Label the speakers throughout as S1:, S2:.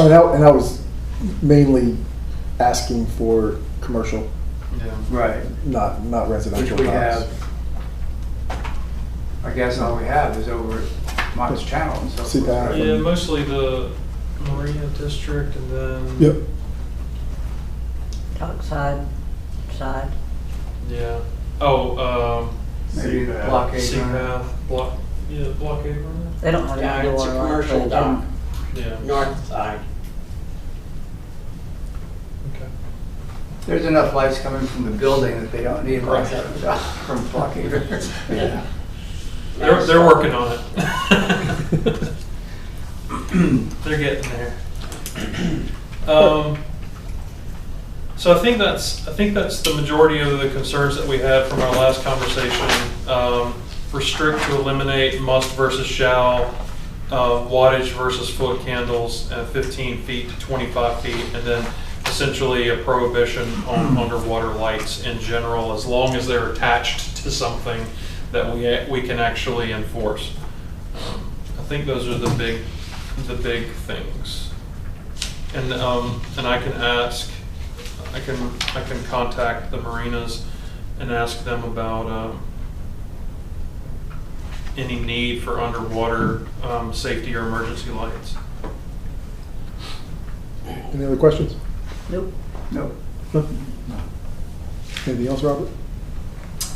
S1: And I, and I was mainly asking for commercial,
S2: Right,
S1: not, not
S2: which
S1: residential.
S2: we
S1: lots.
S2: have, I guess all we have is over at Mott's Channel and so forth.
S1: CPAC.
S2: right?
S3: Yeah, mostly the Marina District and then.
S1: Yep,
S4: Talk side, side.
S3: Yeah. Oh,
S2: Maybe the
S3: um,
S2: blockade. runner.
S3: CPAC, block, yeah, blockade runner?
S4: They don't have
S5: Yeah,
S4: an
S5: it's
S4: door
S5: a
S4: like um,
S5: commercial
S4: they
S5: dock,
S3: Yeah,
S5: north side.
S3: okay.
S2: There's enough lights coming from the building that they don't need lights
S5: Right.
S2: from the- from blockade. runners.
S5: Yeah.
S3: They're, they're working on it. They're getting there. Um, so I think that's, I think that's the majority of the concerns that we had from our last conversation. Um, restrict to eliminate must versus shall, uh, wattage versus foot candles, and fifteen feet to twenty-five feet, and then essentially a prohibition on underwater lights in general, as long as they're attached to something that we, we can actually enforce. Um, I think those are the big, the big things. And, um, and I can ask, I can, I can contact the marinas and ask them about, um, any need for underwater, um, safety or emergency lights.
S1: any other questions?
S4: Nope.
S2: Nope.
S1: No? Anything else, Robert?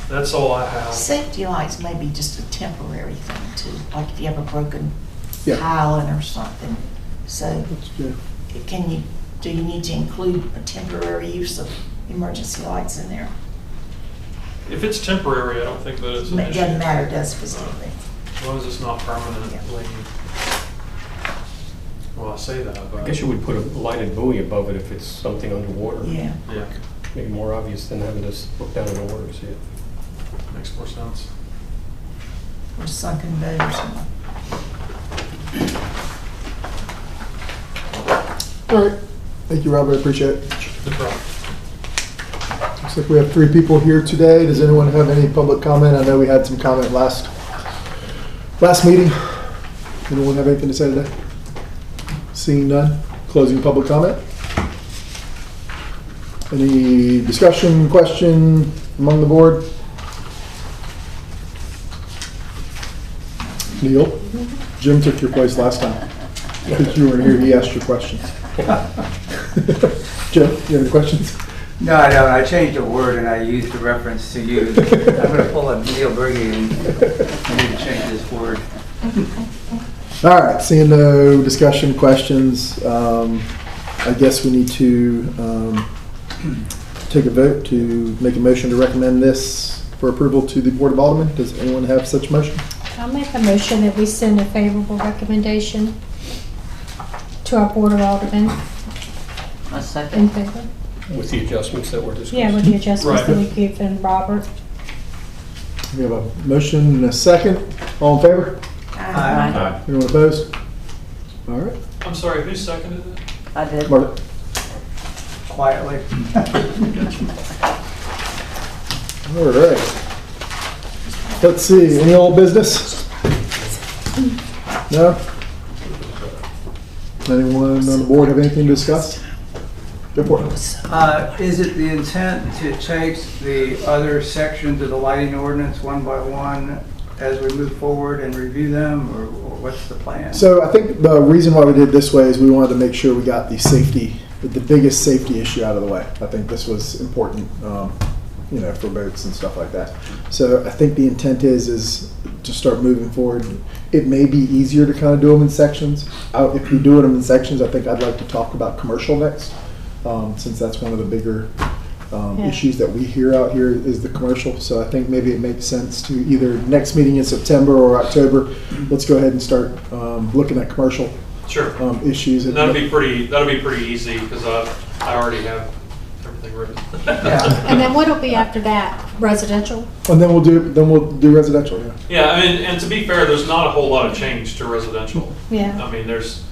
S3: That's all I have.
S6: Safety lights may be just a temporary thing too, like if you have a broken
S1: Yeah.
S6: island or something. So
S1: That's- yeah.
S6: can you, do you need to include a temporary use of emergency lights in there?
S3: If it's temporary, I don't think that it's
S6: It
S3: an issue.
S6: doesn't matter, does it, specifically?
S3: As long as it's not permanently, well, I say that, but.
S7: I guess you would put a lighted buoy above it if it's something underwater.
S6: Yeah.
S3: Yeah,
S7: Maybe more obvious than having this look down in the water, to see it.
S3: makes more sense.
S6: Or sunken boat or something.
S1: All right, thank you, Robert, I appreciate it.
S3: The problem.
S1: Looks like we have three people here today. Does anyone have any public comment? I know we had some comment last, last meeting. Anyone have anything to say today? Seeing none, closing public comment. Any discussion, question among the board? Neil, Jim took your place last time. Because you were here, he asked your questions. Jim, you have any questions?
S2: No, I don't, I changed a word and I used a reference to you. I'm gonna pull up Neil Berge and I need to change this word.
S1: All right, seeing no discussion, questions, um, I guess we need to, um, take a vote to make a motion to recommend this for approval to the Board of Aldermen. Does anyone have such motion?
S8: I'll make a motion that we send a favorable recommendation to our Board of Aldermen
S4: A
S8: in
S4: second.
S8: favor.
S7: With the adjustments that were discussed.
S8: Yeah, with the adjustments that we
S1: Right.
S8: give and Robert.
S1: We have a motion and a second. All in favor?
S6: Aye.
S1: Anyone opposed? All right,
S3: I'm sorry, who seconded it?
S4: I did.
S1: Marta.
S2: Quietly.
S1: All right. Let's see, any old business? No? Anyone on the board have anything to discuss? Go for it.
S2: Uh, Is it the intent to take the other sections of the lighting ordinance one by one as we move forward and review them, or what's the plan?
S1: So I think the reason why we did it this way is we wanted to make sure we got the safety, the biggest safety issue out of the way. I think this was important, um, you know, for boats and stuff like that. So I think the intent is, is to start moving forward. It may be easier to kind of do them in sections. I- If we do them in sections, I think I'd like to talk about commercial next, um, since that's one of the bigger um,
S8: Yeah.
S1: issues that we hear out here is the commercial. So I think maybe it makes sense to either next meeting in September or October, let's go ahead and start um, looking at commercial
S3: Sure.
S1: um, issues. and-
S3: That'll be pretty, that'll be pretty easy, because I, I already have everything written.
S2: Yeah.
S8: And then what'll be after that? Residential?
S1: And then we'll do, then we'll do residential, yeah.
S3: Yeah, I mean, and to be fair, there's not a whole lot of change to residential.
S8: Yeah.
S3: I mean, there's,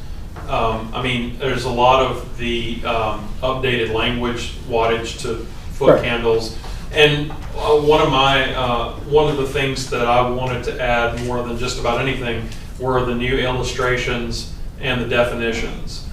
S3: um, I mean, there's a lot of the, um, updated language, wattage to
S1: Right.
S3: foot candles. And, uh, one of my, uh, one of the things that I wanted to add more than just about anything were the new illustrations and the definitions.